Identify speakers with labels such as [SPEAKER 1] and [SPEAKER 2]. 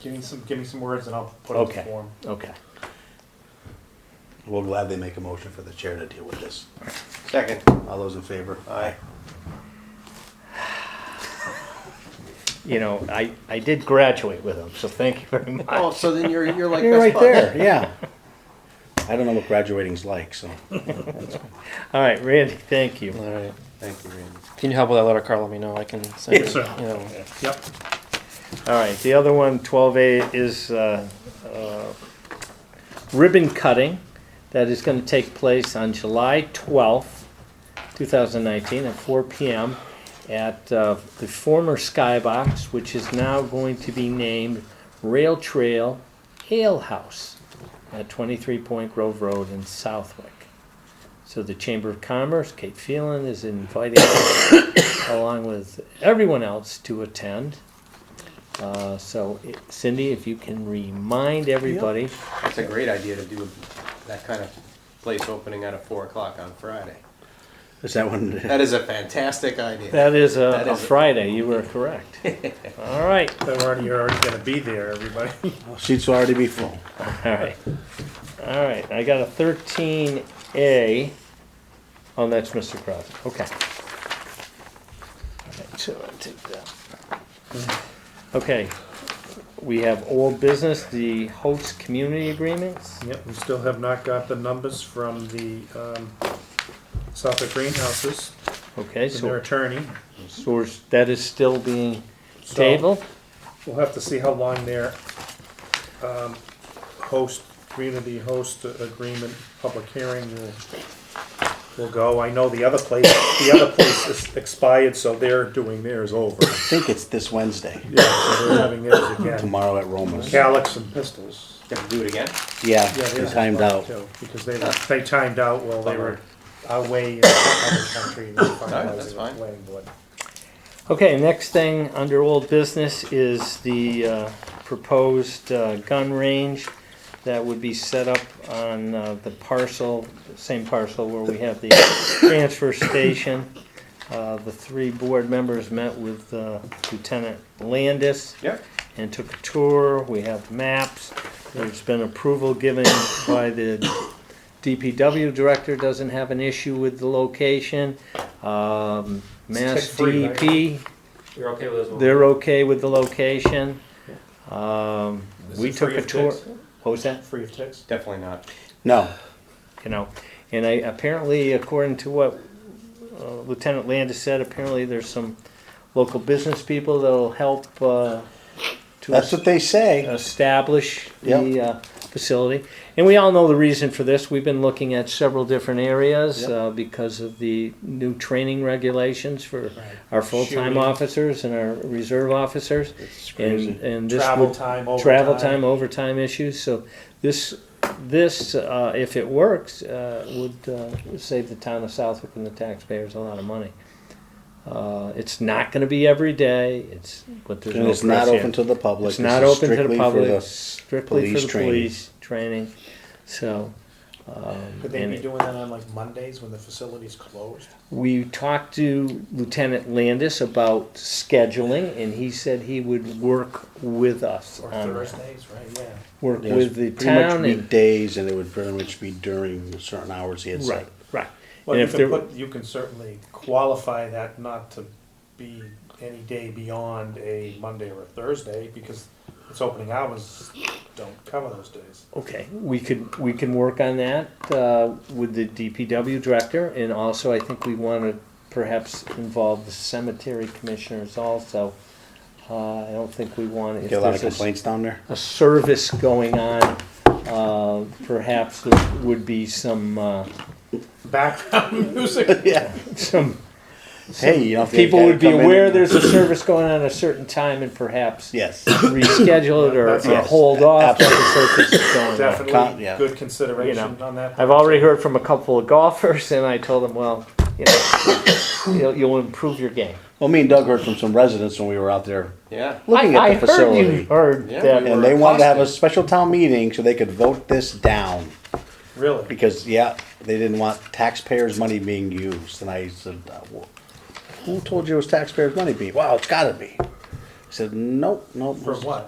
[SPEAKER 1] Give me some, give me some words and I'll put it
[SPEAKER 2] Okay.
[SPEAKER 1] in form.
[SPEAKER 2] Okay.
[SPEAKER 3] We'll gladly make a motion for the chair to deal with this.
[SPEAKER 4] Second.
[SPEAKER 3] All those in favor?
[SPEAKER 4] Aye.
[SPEAKER 2] You know, I, I did graduate with him, so thank you very much.
[SPEAKER 4] Oh, so then you're you're like
[SPEAKER 3] You're right
[SPEAKER 4] best bud.
[SPEAKER 3] there, yeah. I don't know what graduating's like, so.
[SPEAKER 2] All right, Randy, thank you.
[SPEAKER 5] All right.
[SPEAKER 3] Thank you, Randy.
[SPEAKER 5] If you need help with that letter, Carl, let me know. I can send
[SPEAKER 1] Yes,
[SPEAKER 5] you.
[SPEAKER 1] sir.
[SPEAKER 5] you know,
[SPEAKER 1] Yep.
[SPEAKER 2] All right, the other one, 12A, is uh, uh, ribbon cutting that is going to take place on July 12th, 2019, at 4 PM at uh, the former Skybox, which is now going to be named Rail Trail Ale House at 23 Point Grove Road in Southwick. So the Chamber of Commerce, Kate Phelan, is inviting us, along with everyone else to attend. Uh, So it- Cindy, if you can remind everybody,
[SPEAKER 4] That's a great idea to do that kind of place opening at a four o'clock on Friday.
[SPEAKER 3] Is that one,
[SPEAKER 4] That is a fantastic idea.
[SPEAKER 2] that is a
[SPEAKER 4] That
[SPEAKER 2] a
[SPEAKER 4] is a-
[SPEAKER 2] Friday, you were correct. All right,
[SPEAKER 1] They're already, you're already gonna be there, everybody.
[SPEAKER 3] seats will Oh, already be full.
[SPEAKER 2] all right. All right, I got a thirteen A. Oh, that's Mr. Crosby, okay. All right, So I'll take that. Okay, we have old business, the host community agreements.
[SPEAKER 1] Yep, we still have not got the numbers from the, um, Suffolk Greenhouses,
[SPEAKER 2] Okay,
[SPEAKER 1] from their
[SPEAKER 2] so,
[SPEAKER 1] attorney.
[SPEAKER 2] so we're- that is still being
[SPEAKER 1] So
[SPEAKER 2] tabled?
[SPEAKER 1] We'll have to see how long their, um, host, community host agreement, public hearing will, will go. I know the other place, the other place is expired, so they're doing theirs over.
[SPEAKER 3] I think it's this Wednesday,
[SPEAKER 1] Yeah, so they're having theirs again.
[SPEAKER 3] tomorrow at Roma's.
[SPEAKER 1] Calyx and Pistols.
[SPEAKER 4] Do it again.
[SPEAKER 3] Yeah,
[SPEAKER 1] Yeah,
[SPEAKER 3] they
[SPEAKER 1] theirs is
[SPEAKER 3] timed
[SPEAKER 1] fine,
[SPEAKER 3] out.
[SPEAKER 1] too, Because they, were- they timed out while they were
[SPEAKER 4] Bummer.
[SPEAKER 1] away in the other country. and they finalized
[SPEAKER 4] Alright, that's
[SPEAKER 1] it with
[SPEAKER 4] fine.
[SPEAKER 1] planning board.
[SPEAKER 2] Okay, next thing under old business is the uh, proposed uh, gun range that would be set up on uh, the parcel, same parcel where we have the transfer station. Uh, The three board members met with uh, Lieutenant Landis
[SPEAKER 4] Yep.
[SPEAKER 2] and took a tour. We have maps. There's been approval given by the DPW director, doesn't have an issue with the location. Um, Mass
[SPEAKER 1] tick-free, right?
[SPEAKER 2] DEP,
[SPEAKER 6] You're okay with those ones?
[SPEAKER 2] they're okay with the location. Um,
[SPEAKER 6] Is
[SPEAKER 2] we
[SPEAKER 6] it
[SPEAKER 2] took
[SPEAKER 6] free
[SPEAKER 2] a
[SPEAKER 6] of
[SPEAKER 2] tour.
[SPEAKER 6] ticks?
[SPEAKER 2] What was that?
[SPEAKER 1] Free of ticks?
[SPEAKER 4] Definitely not.
[SPEAKER 3] No,
[SPEAKER 2] You know, and I, apparently, according to what uh, Lieutenant Landis said, apparently there's some local business people that'll help, uh, to
[SPEAKER 3] that's what they say.
[SPEAKER 2] establish the uh, facility. And we all know the reason for this. We've been looking at several different areas
[SPEAKER 3] Yep.
[SPEAKER 2] uh, because of the new training regulations for our full-time
[SPEAKER 1] Shooting.
[SPEAKER 2] officers and our reserve officers.
[SPEAKER 3] It's
[SPEAKER 2] And,
[SPEAKER 3] crazy.
[SPEAKER 2] and this
[SPEAKER 1] Travel
[SPEAKER 2] would-
[SPEAKER 1] time, overtime.
[SPEAKER 2] travel time, overtime issues. So this, this, uh, if it works, uh, would uh, save the town of Southwick and the taxpayers a lot of money. Uh, It's not going to be every day. It's, but there's
[SPEAKER 3] And
[SPEAKER 2] no
[SPEAKER 3] it's not
[SPEAKER 2] press here.
[SPEAKER 3] open to the public.
[SPEAKER 2] It's
[SPEAKER 3] This
[SPEAKER 2] not
[SPEAKER 3] is
[SPEAKER 2] open to
[SPEAKER 3] strictly
[SPEAKER 2] the
[SPEAKER 3] for
[SPEAKER 2] public, strictly for
[SPEAKER 3] police
[SPEAKER 2] the
[SPEAKER 3] training.
[SPEAKER 2] police training, so. um,
[SPEAKER 1] Could they
[SPEAKER 2] and
[SPEAKER 1] be doing that on like Mondays when the facility's closed?
[SPEAKER 2] We talked to Lieutenant Landis about scheduling, and he said he would work with us
[SPEAKER 1] Or
[SPEAKER 2] on that.
[SPEAKER 1] Thursdays, right, yeah.
[SPEAKER 2] Work
[SPEAKER 3] Yeah,
[SPEAKER 2] with the
[SPEAKER 3] it's pretty much
[SPEAKER 2] town and,
[SPEAKER 3] Weekdays, and it would pretty much be during certain hours he had said.
[SPEAKER 2] right, right.
[SPEAKER 1] Well,
[SPEAKER 2] And
[SPEAKER 1] you
[SPEAKER 2] if there-
[SPEAKER 1] can put, you can certainly qualify that not to be any day beyond a Monday or a Thursday, because its opening hours don't cover those days.
[SPEAKER 2] Okay, we could, we can work on that uh, with the DPW director, and also I think we want to perhaps involve the cemetery commissioners also. Uh, I don't think we want, if
[SPEAKER 3] Get a lot of
[SPEAKER 2] there's a
[SPEAKER 3] complaints down there?
[SPEAKER 2] a service going on, uh, perhaps there would be some, uh,
[SPEAKER 1] Background music.
[SPEAKER 3] Yeah.
[SPEAKER 2] some,
[SPEAKER 3] Hey, you know, if they
[SPEAKER 2] people
[SPEAKER 3] gotta
[SPEAKER 2] would be
[SPEAKER 3] come in
[SPEAKER 2] aware
[SPEAKER 3] and-
[SPEAKER 2] there's a service going on at a certain time and perhaps
[SPEAKER 3] Yes.
[SPEAKER 2] reschedule it or
[SPEAKER 1] That's-
[SPEAKER 2] or
[SPEAKER 1] yes,
[SPEAKER 2] hold off. if the service is going on.
[SPEAKER 3] Con-
[SPEAKER 1] Definitely
[SPEAKER 3] yeah.
[SPEAKER 1] good consideration
[SPEAKER 2] You
[SPEAKER 1] on that.
[SPEAKER 2] I've already heard from a couple of golfers and I told them, well, you know, you'll, you'll improve your game.
[SPEAKER 3] Well, me and Doug heard from some residents when we were out there
[SPEAKER 4] Yeah.
[SPEAKER 3] looking
[SPEAKER 2] I-
[SPEAKER 3] at the
[SPEAKER 2] I heard you
[SPEAKER 3] facility.
[SPEAKER 2] heard
[SPEAKER 4] Yeah,
[SPEAKER 2] that.
[SPEAKER 4] we
[SPEAKER 3] And
[SPEAKER 4] were
[SPEAKER 3] they wanted to have a
[SPEAKER 4] accosted.
[SPEAKER 3] special town meeting so they could vote this down
[SPEAKER 1] Really?
[SPEAKER 3] because, yeah, they didn't want taxpayers' money being used. And I said, uh, well, "Who told you it was taxpayers' money being? Wow, it's got to be." He said, "Nope, nope."
[SPEAKER 1] For what?